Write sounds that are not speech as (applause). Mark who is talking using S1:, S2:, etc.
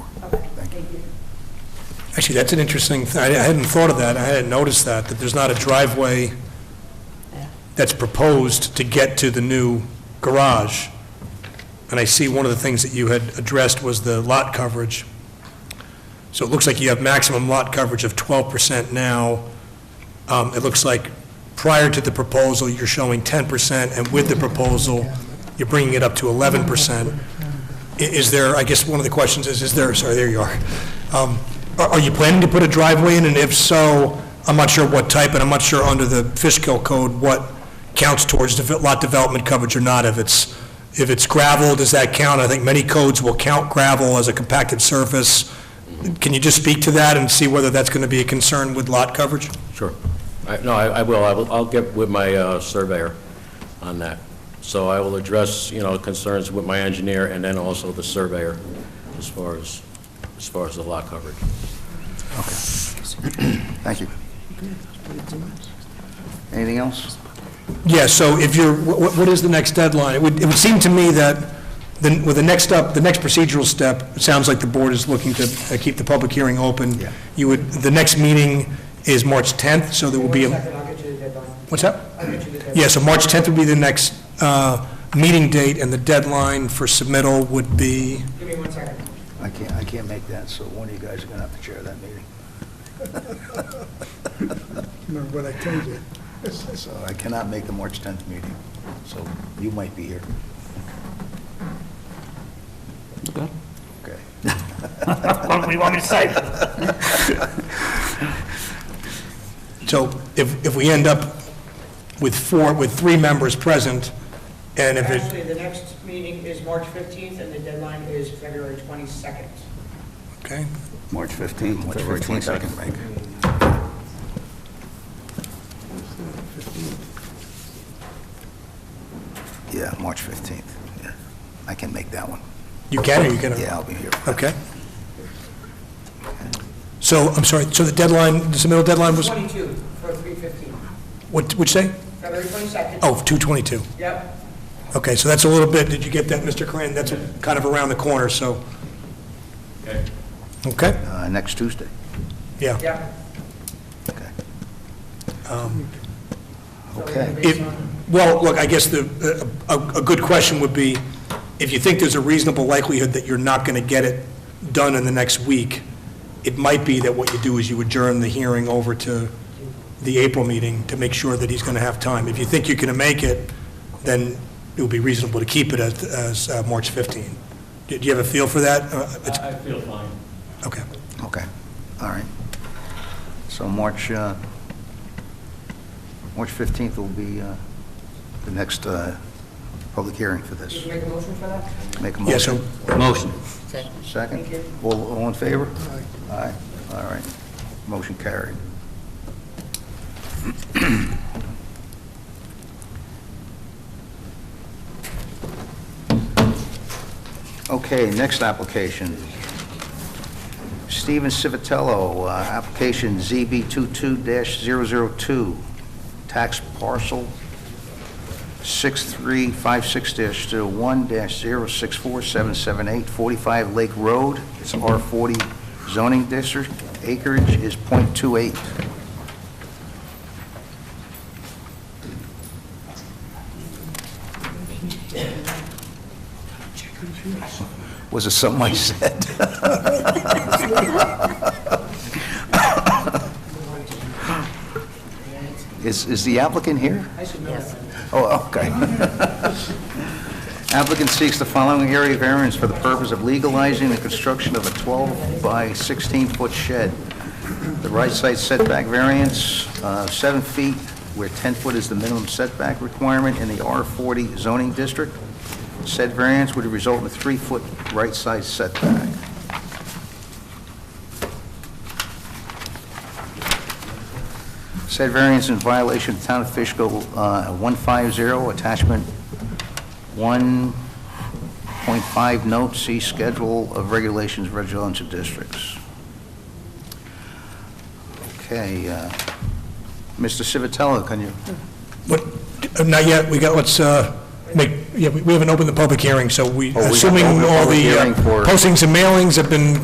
S1: Actually, that's an interesting, th- I I hadn't thought of that, I hadn't noticed that, that there's not a driveway that's proposed to get to the new garage. And I see one of the things that you had addressed was the lot coverage. So it looks like you have maximum lot coverage of 12% now. Um, It looks like prior to the proposal, you're showing 10%, and with the proposal, you're bringing it up to 11%. I- Is there, I guess one of the questions is, is there, sorry, there you are. Um, Are are you planning to put a driveway in, and if so, I'm not sure what type, and I'm not sure under the Fishkill code what counts towards the lot development coverage or not, if it's, if it's gravel, does that count? I think many codes will count gravel as a compacted surface. Can you just speak to that and see whether that's going to be a concern with lot coverage?
S2: Sure. I- No, I I will, I will, I'll get with my uh, surveyor on that. So I will address, you know, concerns with my engineer and then also the surveyor as far as, as far as the lot coverage.
S3: Thank you. Anything else?
S1: Yeah, so if you're, wh- wh- what is the next deadline? It would, it would seem to me that, the- with the next up, the next procedural step, it sounds like the board is looking to uh, keep the public hearing open.
S3: Yeah.
S1: You would, the next meeting is March 10th, so there will be a... What's that? Yeah, so March 10th would be the next uh, meeting date, and the deadline for submittal would be,
S4: Give me one second.
S3: I can't, I can't make that, so one of you guys are going to have to chair that meeting.
S5: Remember what I told you?
S3: So I cannot make the March 10th meeting, so you might be here. Okay.
S6: What do you want me to say?
S1: so if, if we end up with four, with three members present, and if it,
S4: Actually, the next meeting is March 15th, and the deadline is February 22nd.
S1: okay?
S3: March 15th, February 22nd, Mike. Yeah, March 15th. Yeah, I can make that one.
S1: You can, or you can...
S3: Yeah, I'll be here.
S1: Okay. So, I'm sorry, so the deadline, the submittal deadline was,
S4: 22 for 3:15.
S1: what, which day?
S4: February 22nd.
S1: Oh, 222.
S4: Yep.
S1: Okay, so that's a little bit, did you get that, Mr. Corin? That's kind of around the corner, so. Okay. Okay,
S3: Uh, Next Tuesday.
S1: yeah.
S4: Yep.
S3: Okay.
S4: So we're gonna
S3: Okay.
S4: base
S1: If-
S4: on-
S1: Well, look, I guess the, a, a- a good question would be, if you think there's a reasonable likelihood that you're not going to get it done in the next week, it might be that what you do is you adjourn the hearing over to the April meeting to make sure that he's going to have time. If you think you're going to make it, then it would be reasonable to keep it as, as uh, March 15. Do do you have a feel for that? Uh, it's-
S7: I feel fine.
S1: Okay.
S3: Okay, all right. So March, uh, March 15th will be uh, the next uh, public hearing for
S4: Did
S3: this.
S4: you make a motion for that?
S3: Make a
S1: Yeah, so-
S3: motion.
S2: Motion.
S3: Second?
S4: Thank you.
S3: All all in favor? Aye. Aye, all right. Motion carried. Okay, next application. Steven Civitello, uh, application ZB 22-002, tax parcel 6356-1-064778, 45 Lake Road. It's R40 zoning district. Acreage is .28. Was it something I said? (laughs) Is is the applicant here? Oh, okay. Applicant seeks the following area variance for the purpose of legalizing the construction of a 12 by 16-foot shed. The right side setback variance, uh, 7 feet, where 10 foot is the minimum setback requirement in the R40 zoning district. Said variance would result in a 3-foot right side setback. Said variance in violation of Town of Fishkill uh, 150, attachment 1.5 note, see schedule of regulations of residential districts. Okay, uh, Mr. Civitello, can you,
S1: What, uh, not yet, we got, let's, uh, make, yeah, we we haven't opened the public hearing, so we,
S3: Oh, we have to
S1: assuming
S3: open the
S1: all
S3: public
S1: the uh,
S3: hearing for-
S1: postings and mailings have been